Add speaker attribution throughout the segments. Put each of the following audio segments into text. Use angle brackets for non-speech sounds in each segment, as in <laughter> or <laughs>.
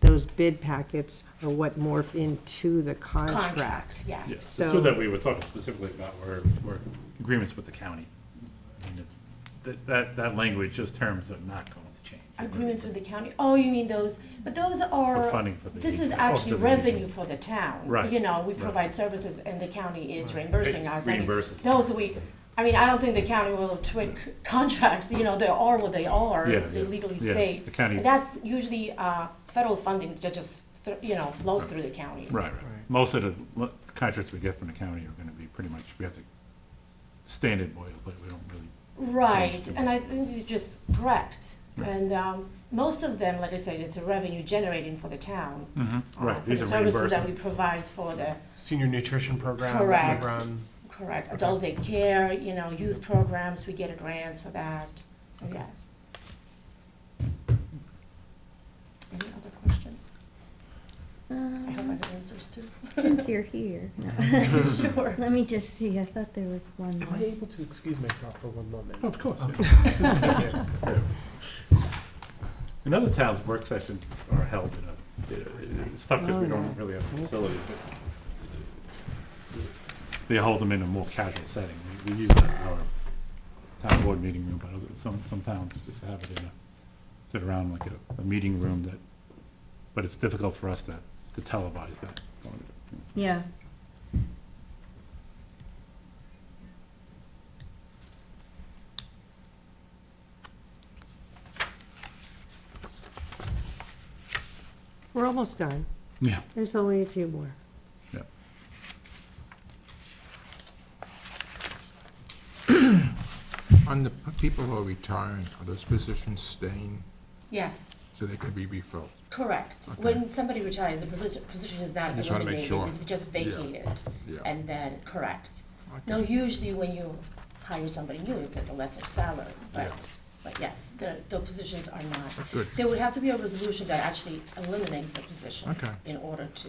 Speaker 1: those bid packets are what morph into the contract.
Speaker 2: Contract, yes.
Speaker 3: Yes, that's
Speaker 1: So-
Speaker 3: what that we were talking specifically about, were, were agreements with the county. I mean, it's- That, that, that language, those terms are not going to change.
Speaker 2: Agreements with the county, oh, you mean those, but those are.
Speaker 3: funding for the
Speaker 2: This is
Speaker 3: region.
Speaker 2: actually
Speaker 3: Oh, for the region.
Speaker 2: revenue for the town.
Speaker 3: Right,
Speaker 2: You know, we
Speaker 3: right.
Speaker 2: provide services and the county is reimbursing us. I mean,
Speaker 3: Reimburses.
Speaker 2: Those we, I mean, I don't think the county will tweak contracts, you know, they are what they are.
Speaker 3: Yeah,
Speaker 2: They
Speaker 3: yeah,
Speaker 2: legally
Speaker 3: yeah.
Speaker 2: state.
Speaker 3: The county-
Speaker 2: And That's usually, uh, federal funding that just, thr- you know, flows through the county.
Speaker 3: Right, right. Most of the lo- contracts we get from the county are gonna be pretty much, we have to standard boilerplate, we don't really.
Speaker 2: Right,
Speaker 3: Sounds
Speaker 2: and I think you're just correct.
Speaker 3: Right.
Speaker 2: And um, most of them, like I said, it's a revenue generating for the town. uh,
Speaker 3: Right,
Speaker 2: for
Speaker 3: these
Speaker 2: the
Speaker 3: are
Speaker 2: services that we
Speaker 3: reimbursements.
Speaker 2: provide for the,
Speaker 4: Senior nutrition program.
Speaker 2: Correct.
Speaker 4: That we run.
Speaker 2: correct, adult daycare, you know, youth programs, we get grants for that, so yes. Any other questions? I hope I
Speaker 5: Um,
Speaker 2: have answers too.
Speaker 5: <laughs> Since you're
Speaker 2: <laughs>
Speaker 5: here,
Speaker 2: Sure.
Speaker 5: let me just see, I thought there was one
Speaker 4: Am I
Speaker 5: more.
Speaker 4: able to excuse myself for one moment?
Speaker 3: Oh,
Speaker 4: <laughs>
Speaker 3: Of course. yeah.
Speaker 4: Thank you.
Speaker 3: In other towns, work sessions are held in a, it's tough
Speaker 2: Oh,
Speaker 3: because we don't really have a facility, but they hold them in a more casual setting. We we use that in our town board meeting room, but other- some, some towns just have it in a, sit around like a, a meeting room that, but it's difficult for us to, to televise that.
Speaker 5: Yeah.
Speaker 1: We're almost done.
Speaker 3: Yeah.
Speaker 1: There's only a few more.
Speaker 3: Yeah.
Speaker 6: On the p- people who are retiring, are those positions staying
Speaker 2: Yes,
Speaker 6: so they can be refilled?
Speaker 2: correct. When somebody retires, the posi- position is not
Speaker 6: I just wanna make
Speaker 2: eliminated,
Speaker 6: sure.
Speaker 2: it's just
Speaker 6: Yeah.
Speaker 2: vacated.
Speaker 6: Yeah.
Speaker 2: And then, correct.
Speaker 6: Okay.
Speaker 2: No, usually when you hire somebody new, it's at a lesser salary, but,
Speaker 6: Yeah.
Speaker 2: but yes, the, the positions are not.
Speaker 6: Good.
Speaker 2: There would have to be a resolution that actually eliminates the position.
Speaker 6: Okay.
Speaker 2: In order to,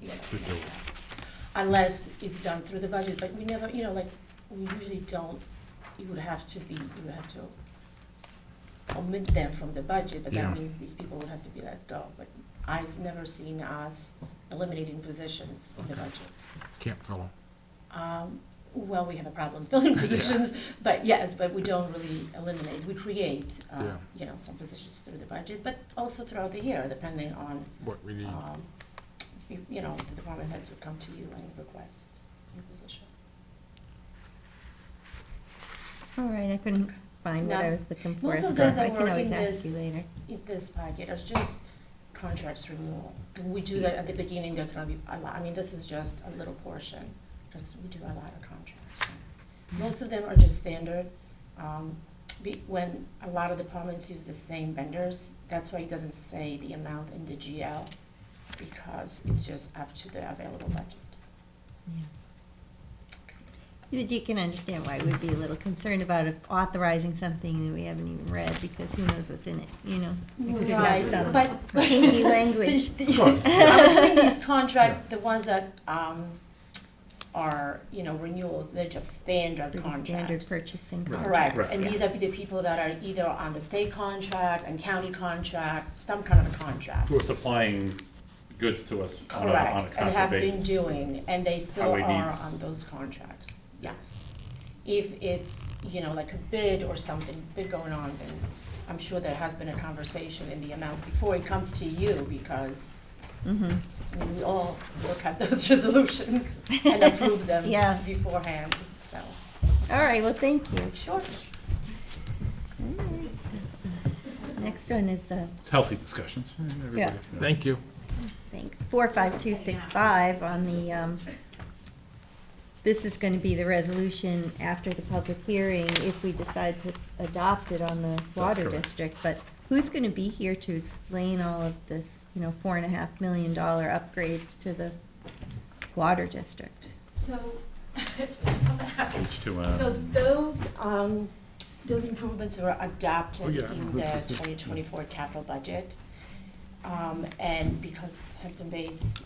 Speaker 2: you know.
Speaker 6: To do it.
Speaker 2: Unless it's done through the budget, but we never, you know, like, we usually don't, you would have to be, you would have to omit them from the budget, but that
Speaker 6: Yeah.
Speaker 2: means these people would have to be let go. But I've never seen us eliminating positions in the budget.
Speaker 6: Can't fill them.
Speaker 2: Um, well, we have a problem filling <laughs> positions, but yes, but we don't really eliminate, we create, uh,
Speaker 6: Yeah.
Speaker 2: you know, some positions through the budget, but also throughout the year, depending on,
Speaker 6: What we need.
Speaker 2: um, you know, the department heads would come to you and request new positions.
Speaker 5: All right, I couldn't find what
Speaker 2: No.
Speaker 5: I was looking for.
Speaker 2: Most
Speaker 5: so
Speaker 2: of them
Speaker 5: I
Speaker 2: that
Speaker 5: can
Speaker 2: were
Speaker 5: always
Speaker 2: in
Speaker 5: ask you
Speaker 2: this-
Speaker 5: later.
Speaker 2: in this packet is just contracts renewal. And we do that at the beginning, there's gonna be a lot, I mean, this is just a little portion, because we do a lot of contracts. Most of them are just standard. Um, be- when a lot of departments use the same vendors, that's why it doesn't say the amount in the GL, because it's just up to the available budget.
Speaker 5: Yeah. But you can understand why we'd be a little concerned about authorizing something that we haven't even read, because who knows what's in it, you know? There could be some
Speaker 2: But. <laughs>
Speaker 5: Kinky language.
Speaker 3: Of course.
Speaker 2: I was thinking these contract, the ones that, um, are, you know, renewals, they're just standard
Speaker 5: Pretty standard
Speaker 2: contracts.
Speaker 5: purchasing
Speaker 2: Correct,
Speaker 5: contracts.
Speaker 2: and
Speaker 5: yeah.
Speaker 2: these are the people that are either on the state contract and county contract, some kind of a contract.
Speaker 3: Who are supplying goods to us on a, on a
Speaker 2: Correct, and
Speaker 3: constant
Speaker 2: have been
Speaker 3: basis.
Speaker 2: doing, and they still
Speaker 3: Highway
Speaker 2: are
Speaker 3: needs.
Speaker 2: on those contracts, yes. If it's, you know, like a bid or something big going on, then I'm sure there has been a conversation in the amounts before it comes to you, because
Speaker 5: Mhm.
Speaker 2: I mean, we all look at those <laughs> resolutions and approve them
Speaker 5: Yeah.
Speaker 2: beforehand, so,
Speaker 5: All right, well, thank you.
Speaker 2: sure.
Speaker 5: All right, so, Next one is, uh,
Speaker 3: It's healthy discussions.
Speaker 2: Mm-hmm.
Speaker 5: yeah.
Speaker 6: Thank you.
Speaker 5: Thanks. Four, five, two, six, five on the, um, this is gonna be the resolution after the public hearing if we decide to adopt it on the water
Speaker 3: correct.
Speaker 5: district. But who's gonna be here to explain all of this, you know, four and a half million dollar upgrades to the water district?
Speaker 2: So,
Speaker 3: H two
Speaker 2: so
Speaker 3: M.
Speaker 2: those, um, those improvements were
Speaker 6: Oh,
Speaker 2: adopted
Speaker 6: yeah,
Speaker 2: in
Speaker 6: this
Speaker 2: the
Speaker 6: is it.
Speaker 2: twenty twenty-four capital budget. Um, and because Hampton Bays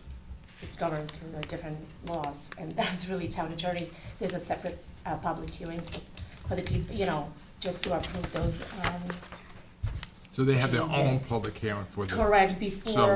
Speaker 2: is governed through a different laws, and <laughs> that's really town attorneys, there's a separate, uh, public hearing for the people, you know, just to approve those, um,
Speaker 6: So they have their own
Speaker 2: Changes.
Speaker 6: public hearing for this.
Speaker 2: correct before.